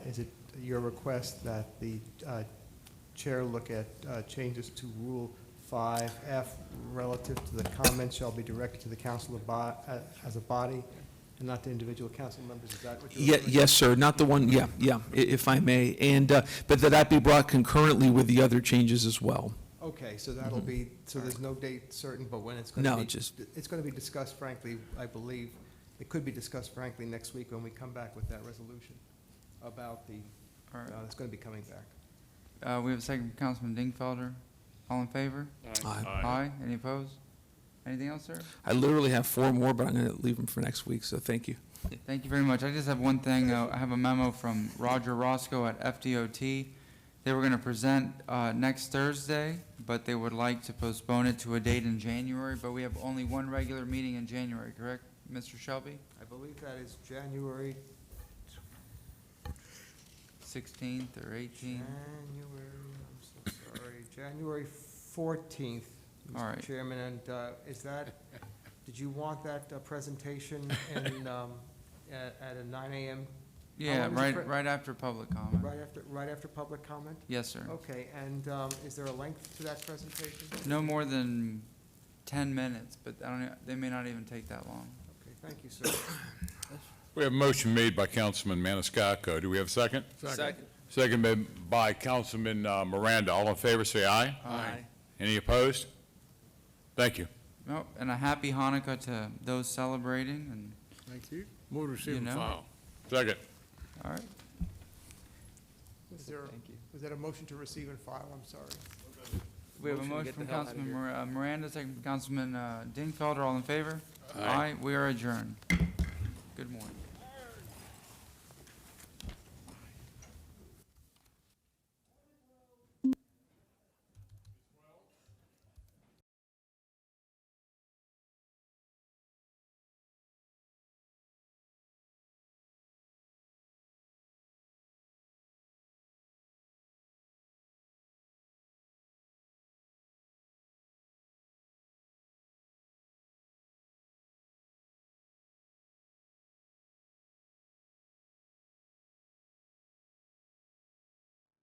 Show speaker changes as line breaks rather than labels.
is it your request that the uh, chair look at uh, changes to Rule 5F relative to the comments shall be directed to the council of bo- uh, as a body and not to individual council members? Is that what you're?
Ye- Yes, sir, not the one, yeah, yeah, i- if I may. And, uh, but that that be brought concurrently with the other changes as well.
Okay, so that'll be, so there's no date certain, but when it's going to be?
No, just-
It's going to be discussed frankly, I believe, it could be discussed frankly next week when we come back with that resolution about the,
All
uh,
right.
it's going to be coming back.
Uh, we have a second from Councilman Dingfelder. All in favor?
Aye.
Any opposed? Anything else, sir?
I literally have four more, but I'm going to leave them for next week, so thank you.
Thank you very much. I just have one thing. uh, I have a memo from Roger Roscoe at FDOT. They were going to present uh, next Thursday, but they would like to postpone it to a date in January, but we have only one regular meeting in January, correct, Mr. Shelby?
I believe that is January,
16th or 18th?
January, I'm so sorry, January 14th,
All
Mr.
right.
Chairman, and uh, is that, did you want that uh, presentation in, um, at at a 9 AM,
Yeah,
long is the Oh, pre-
right, right after public comment.
right after, right after public comment?
Yes, sir.
Okay, and um, is there a length to that presentation?
No more than 10 minutes, but I don't, know- they may not even take that long.
Okay, thank you, sir.
We have a motion made by Councilman Maniscalco. Do we have a second?
Second.
Second been by Councilman uh, Miranda. All in favor, say aye.
Aye.
Any opposed? Thank you.
No, and a happy Hanukkah to those celebrating, and,
Thank you. Move to
You
receive and
know.
file.
Second.
all right.
Is there, is that a motion to receive and file? I'm sorry.
We have a motion from Councilman Mir- uh, Miranda, second from Councilman uh, Dingfelder, all in favor? Aye. We are adjourned. Good morning.